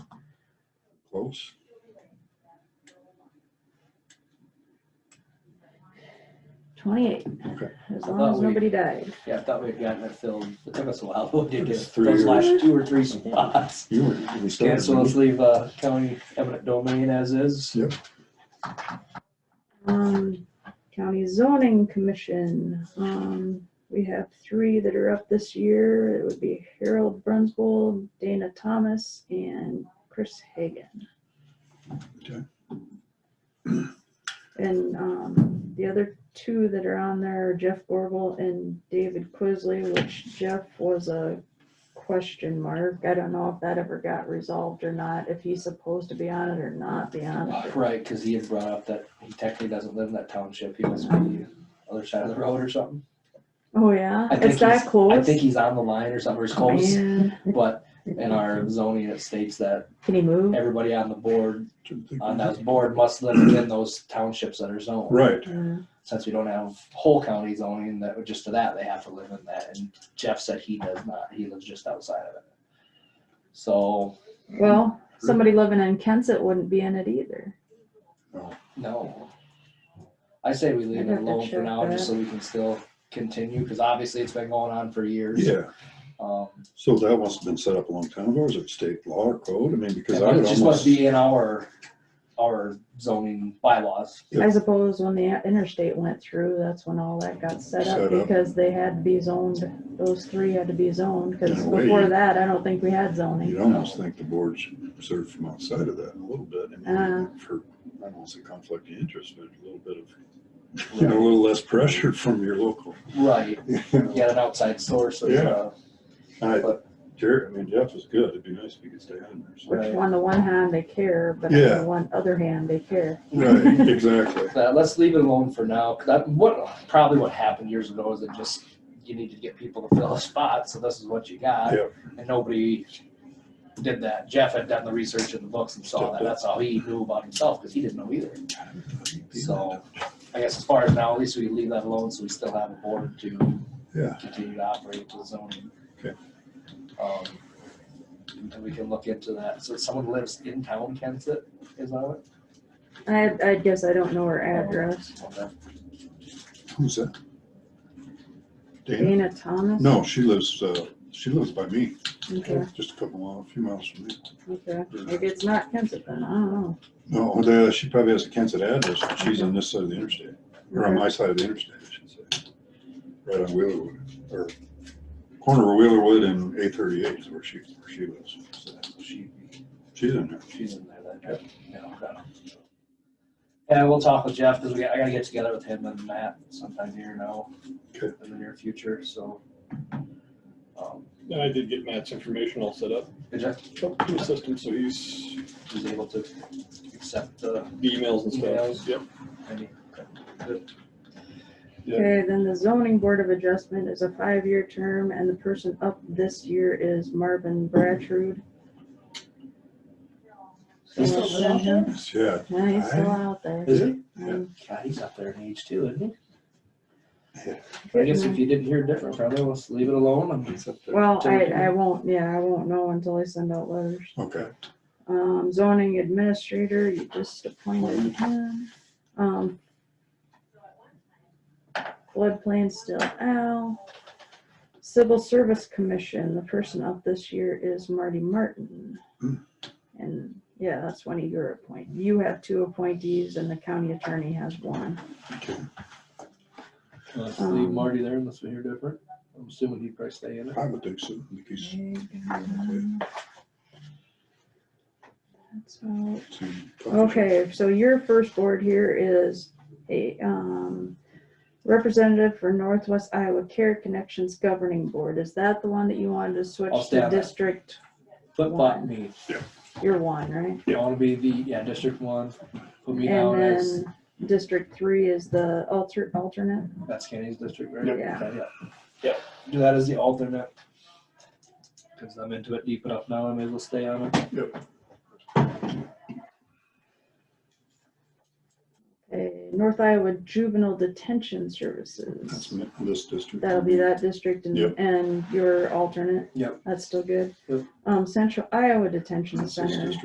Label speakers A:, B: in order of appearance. A: bills.
B: Twenty-eight,
A: Okay.
B: as
C: I
B: long
C: thought
B: as
C: we-
B: nobody died.
C: Yeah, I thought we'd gotten it filled. It took us a while, but we did
A: It
C: get
A: was three
C: those last
A: years.
C: two or three spots.
A: You were, we
C: Okay,
A: started.
C: so
A: didn't
C: let's leave, uh, county eminent domain as is.
B: Um, county zoning commission, um, we have three that are up this year. It would be Harold Brunswold, Dana Thomas, and Chris Hagan.
A: Okay.
B: And, um, the other two that are on there are Jeff Borble and David Quisley, which Jeff was a question mark. I don't know if that ever got resolved or not, if he's supposed to be on it or not be on it.
C: Right, because he had brought up that he technically doesn't live in that township. He must be other side of the road or something.
B: Oh, yeah,
C: I think
B: it's that
C: he's-
B: close.
C: I think he's on the line or something, or he's close,
B: Man,
C: but in our zoning, it states that
B: Can he move?
C: everybody on the board,
A: Didn't think
C: on
A: we
C: that
A: did.
C: board must live within those townships that are zoned.
A: Right,
B: Yeah.
C: Since we don't have whole county zoning, that would- just to that, they have to live in that. And Jeff said he does not. He lives just outside of it. So,
B: Well, somebody living in Kensett wouldn't be in it either.
C: no. I say we leave
B: I'd
C: it
B: have to
C: alone for
B: check
C: now, just
B: that.
C: so we can still continue, because obviously it's been going on for years.
A: yeah,
C: Um,
A: so that must have been set up a long time ago, is it state law or code, I mean, because
C: It
A: I would
C: must- just must
A: almost.
C: be in our, our zoning bylaws.
A: Yeah.
B: I suppose when the interstate went through, that's when all that got set up
A: Set up.
B: because they had to be zoned. Those three had to be zoned because
A: In a way,
B: before
A: you-
B: that, I don't think we had
A: You'd
B: zoning.
A: almost think the board should serve from outside of that a little bit, I mean, for, I don't want to say conflict of interest, but a little bit of, you know, a little less pressure from your local.
C: Right,
A: you
C: you
A: know.
C: got an outside source. of,
A: Yeah.
C: uh,
A: I, Jerry, I mean, Jeff was good, it'd be nice if he could stay on there. so.
B: Which on the one hand, they care, but on
A: Yeah.
B: the one other hand, they care.
A: Right, exactly.
C: Uh, let's leave it alone for now, because that, what, probably what happened years ago is it just, you need to get people to fill a spot, so this is what you got.
A: Yeah.
C: And nobody did that. Jeff had done the research in the books and saw that. That's all he knew about himself, because he didn't know either. So, I guess as far as now, at least we leave that alone, so we still have a board to
A: Yeah.
C: continue to operate to the zoning.
A: Okay.
C: Um, And we can look into that. So someone lives in town, Kensett, is that
B: I, I guess I don't know her address.
C: it? Okay.
A: Who's that? Dana?
B: Dana Thomas?
A: No, she lives, uh, she lives by me,
B: Okay,
A: just a couple miles, a few miles from me.
B: okay. Maybe it's not Kensett then, I don't know.
A: No, the- she probably has a Kansas address, but she's on this side of the interstate, or on my side of the interstate, I should say. Right on Wheelerwood, or corner of Wheelerwood and A thirty-eight is where she, where she lives.
C: So she,
A: She's in there.
C: she's in there that trip. Yeah, okay. And we'll talk with Jeff, because we, I gotta get together with him and Matt sometime here now,
A: Okay.
C: in the near future, so. um,
D: And I did get Matt's information all set up,
C: And Jeff
D: up to the system, so he's
C: was able to accept the,
D: the emails and
C: Emails.
D: stuff. Yep.
C: any,
D: Yeah.
B: Okay, then the zoning board of adjustment is a five-year term and the person up this year is Marvin Brattrud. So
C: He's
B: we'll
C: still
B: send him-
A: Yeah,
B: Yeah, he's still
A: Aye.
B: out there.
C: is he?
B: Um,
C: God, he's up there in age too, isn't
A: Yeah.
C: he? I guess if you didn't hear different from him, let's leave it alone and
A: it's up there.
B: Well, I, I won't, yeah, I won't know until I send out letters.
A: Okay,
B: Um, zoning administrator, you just appointed him. Um, floodplain still out. Civil Service Commission, the person up this year is Marty Martin.
A: Hmm.
B: And, yeah, that's one of your appoint, you have two appointees and the county attorney has one.
A: okay.
C: let's leave
B: leave
C: Marty
B: Marty
C: there unless we hear different. I'm assuming he'd probably stay in it.
A: I would think so, I think he's,
B: That's all.
A: he's-
B: Okay, so your first board here is a um, representative for Northwest Iowa Care Connections Governing Board. Is that the one that you wanted to
C: I'll
B: switch
C: stay
B: to
C: on that.
B: district?
C: Flip flop
B: One.
C: me.
B: You're one, right?
C: I wanna be the, yeah, District One, put me
B: And
C: down as.
B: then District Three is the alter alternate?
C: That's Kenny's district, right?
B: Yep. Yeah.
C: Okay, yeah. Yep. Do that as the alternate. Cause I'm into it deep enough now, I may as well stay on it.
B: Okay, North Iowa Juvenile Detention
A: That's
B: Services.
A: me- this district.
B: That'll be that district and,
A: Yep.
B: and your alternate?
C: Yep.
B: That's still good?
C: Yep.
B: Um, Central Iowa Detention
A: That's this
B: Center.
A: district.